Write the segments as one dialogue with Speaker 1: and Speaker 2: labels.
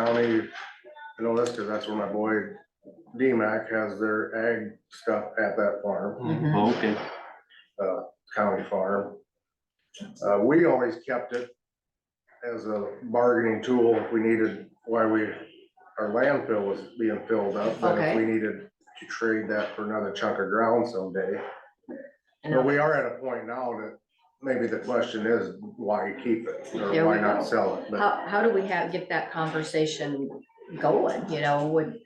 Speaker 1: county, I know this because that's where my boy DMAC has their ag stuff at that farm,
Speaker 2: Mhm.
Speaker 3: Oh, Okay,
Speaker 1: county farm. Uh, we always kept it as a bargaining tool if we needed, why we, our landfill was being filled up. and if
Speaker 2: Okay.
Speaker 1: We needed to trade that for another chunk of ground someday.
Speaker 2: And
Speaker 1: But we are at a point now that maybe the question is, why keep it
Speaker 2: There
Speaker 1: or
Speaker 2: we
Speaker 1: why
Speaker 2: go.
Speaker 1: not sell it? But
Speaker 2: How, how do we have, get that conversation going, you know, would.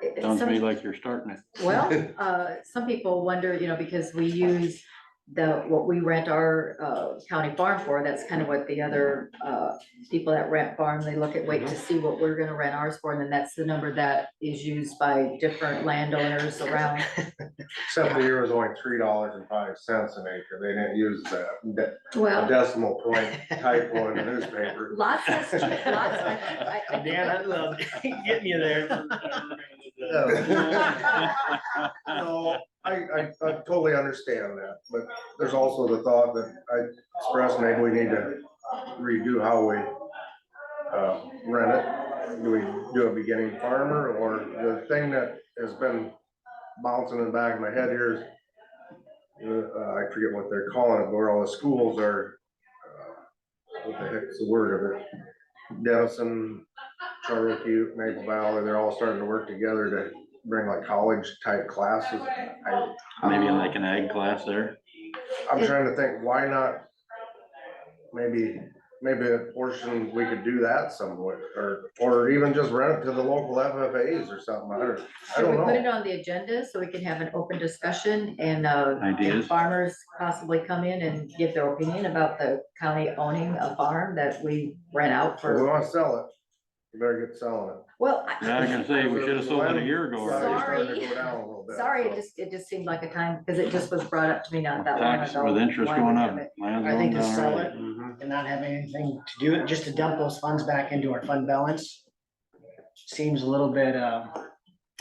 Speaker 2: it- it-
Speaker 3: sounds to
Speaker 2: some-
Speaker 3: me like you're starting it.
Speaker 2: Well, uh, some people wonder, you know, because we use the, what we rent our, uh, county farm for, that's kind of what the other, uh, people that rent farm, they look at, wait to see what we're gonna rent ours for, and then that's the number that is used by different landowners around.
Speaker 1: except the year was only three dollars and five cents an acre. They didn't use that de-
Speaker 2: Well,
Speaker 1: decimal point typo in the newspaper.
Speaker 2: lots has, lots, I, I-
Speaker 4: Dan, I love, getting you there.
Speaker 1: No, I, I, I totally understand that, but there's also the thought that I expressed, maybe we need to redo how we uh, rent it. Do we do a beginning farmer or the thing that has been bouncing in the back of my head here is uh, I forget what they're calling it, where all the schools are, uh, what the heck's the word of it? Denison, Cherokee, Maple Valley, they're all starting to work together to bring like college type classes. I,
Speaker 3: Maybe like an ag class there.
Speaker 1: I'm
Speaker 2: It-
Speaker 1: trying to think, why not? Maybe, maybe a portion, we could do that somewhere, or, or even just rent it to the local FFAs or something, I don't, I
Speaker 2: Should we
Speaker 1: don't
Speaker 2: put it
Speaker 1: know.
Speaker 2: on the agenda so we can have an open discussion and, uh, and
Speaker 3: Ideas.
Speaker 2: farmers possibly come in and give their opinion about the county owning a farm that we rent out
Speaker 1: If we
Speaker 2: for,
Speaker 1: wanna sell it, you better get selling it.
Speaker 2: well,
Speaker 3: Yeah, I was
Speaker 2: I-
Speaker 3: gonna say, we should have sold it a year ago
Speaker 1: Well, it's
Speaker 3: already.
Speaker 1: starting to
Speaker 2: Sorry.
Speaker 1: go down a little bit,
Speaker 2: sorry, it
Speaker 1: so.
Speaker 2: just, it just seemed like a time, because it just was brought up to me not that long
Speaker 3: Tax
Speaker 2: ago.
Speaker 3: with interest
Speaker 2: why
Speaker 3: going
Speaker 2: we
Speaker 3: up.
Speaker 2: have it.
Speaker 3: land's
Speaker 4: I
Speaker 3: going
Speaker 4: think to
Speaker 3: down
Speaker 4: sell
Speaker 3: already.
Speaker 4: it.
Speaker 1: Mhm.
Speaker 4: And not have anything to do, it, just to dump those funds back into our fund balance. Seems a little bit, um,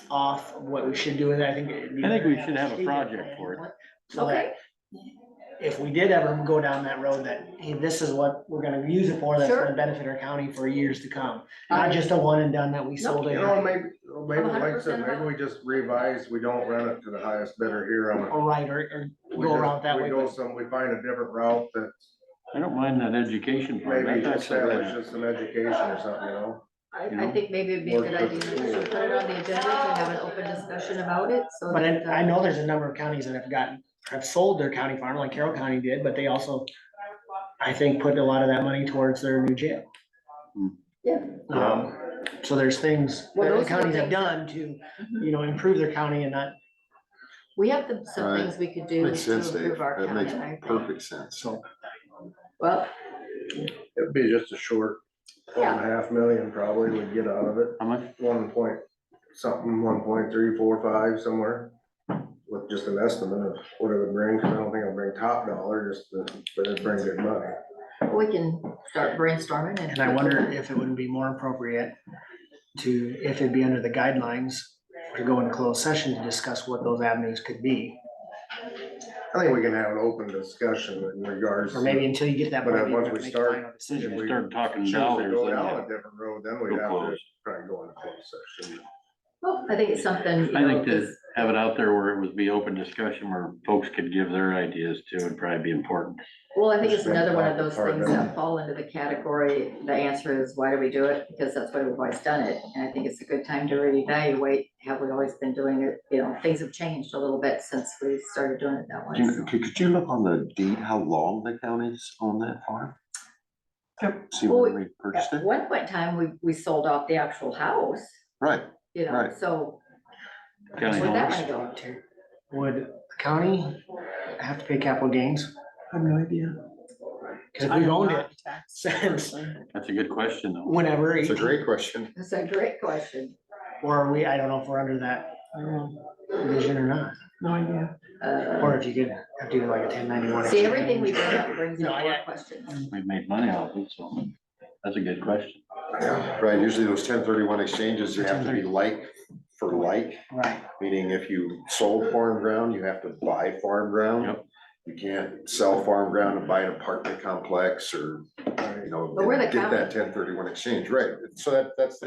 Speaker 4: off of what we should do with it, I think. it'd be
Speaker 3: I think we
Speaker 4: better
Speaker 3: should have a
Speaker 4: strategic
Speaker 3: project
Speaker 4: plan.
Speaker 3: for it.
Speaker 4: So that
Speaker 2: Okay,
Speaker 4: if we did ever go down that road, that, hey, this is what we're gonna use it for, that's
Speaker 2: Sure.
Speaker 4: gonna benefit our county for years to come. Not just a one and done that we sold
Speaker 1: You
Speaker 4: it.
Speaker 1: know, maybe, maybe like I said,
Speaker 2: 100%
Speaker 1: maybe we just revise, we don't rent it to the highest bidder here on it.
Speaker 4: Or right, or, or
Speaker 1: We
Speaker 4: go
Speaker 1: just-
Speaker 4: around that
Speaker 1: we
Speaker 4: way.
Speaker 1: go
Speaker 4: but-
Speaker 1: some, we find a different route that
Speaker 3: I don't mind that education part.
Speaker 1: maybe
Speaker 3: That's actually been-
Speaker 1: establishes some education or something, you know?
Speaker 2: I,
Speaker 3: You
Speaker 2: I
Speaker 3: know?
Speaker 2: think maybe it'd be a
Speaker 1: Work
Speaker 2: good
Speaker 1: with
Speaker 2: idea
Speaker 1: the
Speaker 2: to
Speaker 1: schools.
Speaker 2: put it on the agenda to have an open discussion about it, so.
Speaker 4: But
Speaker 2: that, uh,
Speaker 4: I, I know there's a number of counties that have gotten, have sold their county farm, like Carroll County did, but they also, I think, put a lot of that money towards their new jail.
Speaker 3: Hmm.
Speaker 2: Yeah.
Speaker 4: Um, so there's things
Speaker 2: Well,
Speaker 4: that the
Speaker 2: those are the
Speaker 4: counties have
Speaker 2: things.
Speaker 4: done to,
Speaker 2: Mhm.
Speaker 4: you know, improve their county and not,
Speaker 2: We have the- some
Speaker 5: Right.
Speaker 2: things we could do
Speaker 5: Makes
Speaker 2: to
Speaker 5: sense, Dave.
Speaker 2: improve our
Speaker 5: That
Speaker 2: county.
Speaker 5: makes
Speaker 2: I think.
Speaker 5: perfect sense.
Speaker 4: so.
Speaker 2: Well,
Speaker 1: It'd be just a short, one and a half million probably would get out of it,
Speaker 3: How much?
Speaker 1: one point something, one point three, four, five, somewhere. With just an estimate of what it would bring, cause I don't think it'll bring top dollar, just to, but it'd bring good money.
Speaker 2: we can start brainstorming and.
Speaker 4: And I wonder if it wouldn't be more appropriate to, if it'd be under the guidelines, to go in closed session to discuss what those avenues could be.
Speaker 1: I think we can have an open discussion in regards.
Speaker 4: Or maybe
Speaker 1: to
Speaker 4: until you get to that.
Speaker 1: But
Speaker 4: point,
Speaker 1: then
Speaker 4: you
Speaker 1: once
Speaker 4: have to
Speaker 1: we
Speaker 4: make a
Speaker 1: start-
Speaker 4: final
Speaker 3: If
Speaker 4: decision.
Speaker 3: we start talking
Speaker 1: choose to
Speaker 3: dollars,
Speaker 1: Go
Speaker 3: then
Speaker 1: down a
Speaker 3: yeah.
Speaker 1: different road, then
Speaker 3: Go
Speaker 1: we'd have to
Speaker 3: close.
Speaker 1: try and go in a closed session.
Speaker 2: Well, Oh, I think it's something. you
Speaker 3: I think
Speaker 2: know,
Speaker 3: to
Speaker 2: just-
Speaker 3: have it out there where it would be open discussion where folks could give their ideas too would probably be important.
Speaker 2: Well, I think it's
Speaker 1: Spend
Speaker 2: another one of
Speaker 1: time
Speaker 2: those things
Speaker 1: department.
Speaker 2: that fall into the category, the answer is, why do we do it? Because that's why we've always done it, and I think it's a good time to reevaluate, have we always been doing it? You know, things have changed a little bit since we started doing it that
Speaker 5: Do you-
Speaker 2: way.
Speaker 5: Could, could you look on the deed, how long the county's on that farm? See
Speaker 2: Well,
Speaker 5: when we
Speaker 2: At
Speaker 5: purchased it?
Speaker 2: one point in time, we, we sold off the actual house,
Speaker 5: Right,
Speaker 2: you know,
Speaker 5: Right.
Speaker 2: so
Speaker 3: County
Speaker 2: Where'd that
Speaker 3: owns.
Speaker 2: one go?
Speaker 4: Would the county have to pay capital gains?
Speaker 5: I have no idea.
Speaker 4: Because if we've owned it since
Speaker 3: That's a good question though.
Speaker 4: whenever,
Speaker 5: It's a
Speaker 4: 18
Speaker 5: great question.
Speaker 2: that's a great question.
Speaker 4: or are we, I don't know if we're under that vision or not,
Speaker 2: Uh,
Speaker 4: or if you could have to do like a ten ninety-one.
Speaker 2: See, everything we bring up brings
Speaker 4: No,
Speaker 2: up
Speaker 4: I-
Speaker 2: more questions.
Speaker 3: We've made money off it, so that's a good question.
Speaker 5: Yeah, right. Usually those ten thirty-one exchanges, you have to be like for like,
Speaker 4: Right,
Speaker 5: meaning if you sold farm ground, you have to buy farm ground.
Speaker 3: Yep.
Speaker 5: You can't sell farm ground and buy an apartment complex or, you know,
Speaker 2: But we're the
Speaker 5: get that
Speaker 2: county.
Speaker 5: ten thirty-one exchange, right? So that, that's